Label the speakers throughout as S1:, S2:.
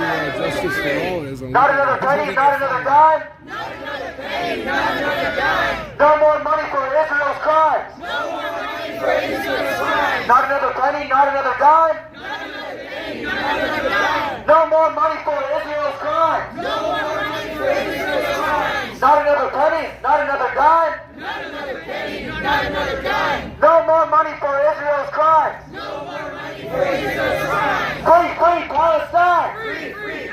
S1: justice for all is a
S2: Not another penny, not another dime. No more money for Israel's crimes. Not another penny, not another dime. No more money for Israel's crimes. Not another penny, not another dime. No more money for Israel's crimes. Free, free Palestine. Free, free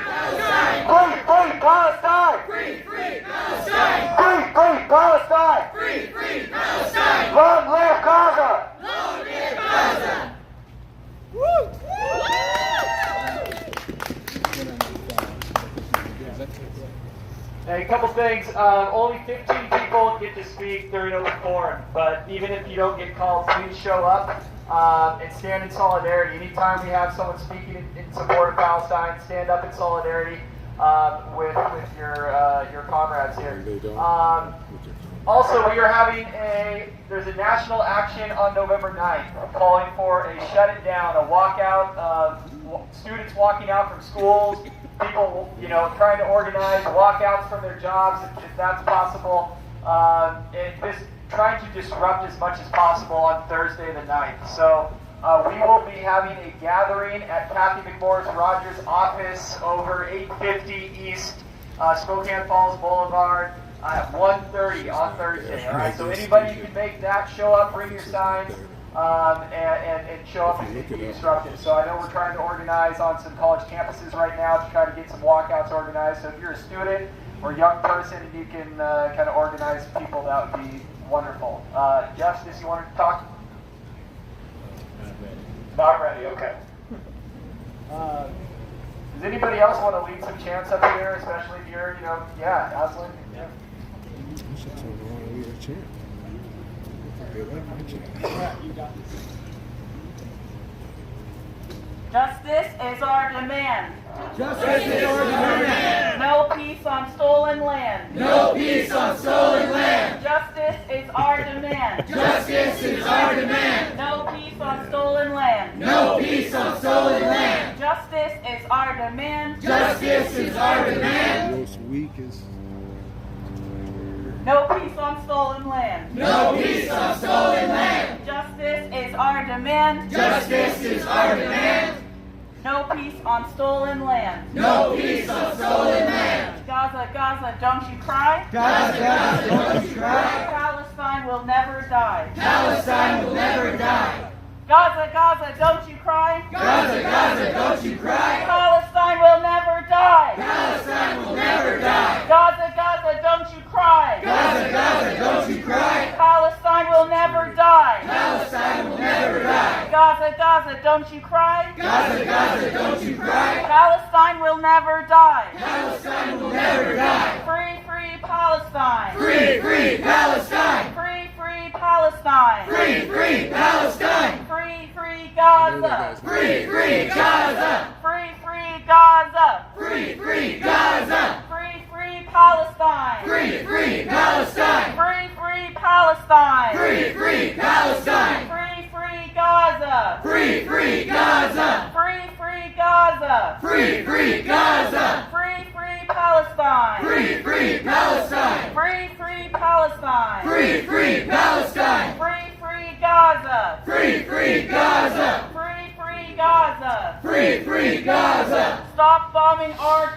S2: Palestine. Free, free Palestine. Free, free Palestine. Long live Gaza.
S3: Hey, a couple things. Uh, only 15 people get to speak during open forum, but even if you don't get called, please show up uh, and stand in solidarity. Anytime we have someone speaking in, in support of Palestine, stand up in solidarity uh, with with your uh, your comrades here. Um, also, we are having a there's a national action on November 9th calling for a shut it down, a walkout of wa- students walking out from schools, people you know trying to organize walkouts from their jobs if, if that's possible, Um and this trying to disrupt as much as possible on Thursday the 9th. So. Uh, we will be having a gathering at Kathy McMorris Rogers' office over 850 East uh, Spokane Falls Boulevard uh, at 1:30 on Thursday. All right, so anybody who can make that, show up, bring your signs, um, and, and, and show up and be disruptive. So I know we're trying to organize on some college campuses right now to try to get some walkouts organized. So if you're a student or a young person and you can uh, kind of organize people, that would be wonderful. Uh, Justice, you want to talk? Not ready, okay. Uh, Does anybody else want to lead some chants up here, especially if you're, you know, yeah, Aslan? yeah.
S1: I should turn around and leave a chair. They like my chair.
S4: Justice is our demand. Justice is our demand. No peace on stolen land. No peace on stolen land. Justice is our demand. Justice is our demand. No peace on stolen land. No peace on stolen land. Justice is our demand.
S1: Most weak is
S4: No peace on stolen land. No peace on stolen land. Justice is our demand. Justice is our demand. No peace on stolen land. No peace on stolen land. Gaza, Gaza, don't you cry. Gaza, Gaza, don't you cry. Palestine will never die. Palestine will never die. Gaza, Gaza, don't you cry. Gaza, Gaza, don't you cry. Palestine will never die. Palestine will never die. Gaza, Gaza, don't you cry. Palestine will never die. Palestine will never die. Gaza, Gaza, don't you cry. Gaza, Gaza, don't you cry. Palestine will never die. Palestine will never die. Free, free Palestine. Free, free Palestine. Free, free Palestine. Free, free Palestine. Free, free Gaza. Free, free Gaza. Free, free Gaza. Free, free Palestine. Free, free Palestine! Free, free Palestine! Free, free Gaza! Free, free Gaza! Free, free Gaza! Free, free Gaza! Free, free Palestine! Free, free Palestine! Free, free Palestine! Free, free Palestine! Free, free Gaza! Free, free Gaza! Free, free Gaza! Free, free Gaza! Stop bombing our